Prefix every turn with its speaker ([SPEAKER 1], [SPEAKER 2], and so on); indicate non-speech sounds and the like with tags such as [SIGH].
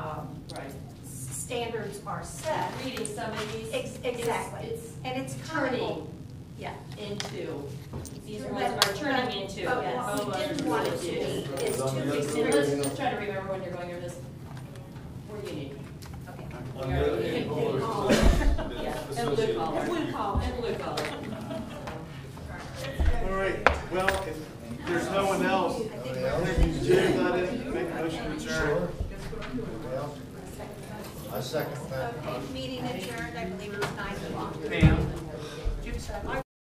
[SPEAKER 1] Um,
[SPEAKER 2] standards are set,
[SPEAKER 1] reading some of these.
[SPEAKER 2] Ex-
[SPEAKER 1] it's-
[SPEAKER 2] exactly.
[SPEAKER 1] It's
[SPEAKER 2] and it's comparable.
[SPEAKER 1] turning
[SPEAKER 2] Yeah.
[SPEAKER 1] into, these
[SPEAKER 2] But-
[SPEAKER 1] ones are turning into,
[SPEAKER 2] But
[SPEAKER 1] yes.
[SPEAKER 2] what we Oh, didn't want it to be is
[SPEAKER 3] On
[SPEAKER 2] too
[SPEAKER 3] the other
[SPEAKER 1] And
[SPEAKER 3] way.
[SPEAKER 2] restrictive.
[SPEAKER 1] let's just try to remember when you're going over this, we're union.
[SPEAKER 2] Okay.
[SPEAKER 3] On the other
[SPEAKER 1] Yeah.
[SPEAKER 3] hand, colors
[SPEAKER 1] [LAUGHS] Yeah.
[SPEAKER 3] [LAUGHS] that's
[SPEAKER 1] And blue
[SPEAKER 3] associated
[SPEAKER 1] collar.
[SPEAKER 3] with you.
[SPEAKER 1] And blue collar.
[SPEAKER 4] All right, well, if there's no one else, James, I didn't make a motion to adjourn.
[SPEAKER 3] Well, I second that.
[SPEAKER 2] Okay, meeting adjourned, I believe it's nine o'clock.
[SPEAKER 5] Ma'am, do you have a second?
[SPEAKER 2] I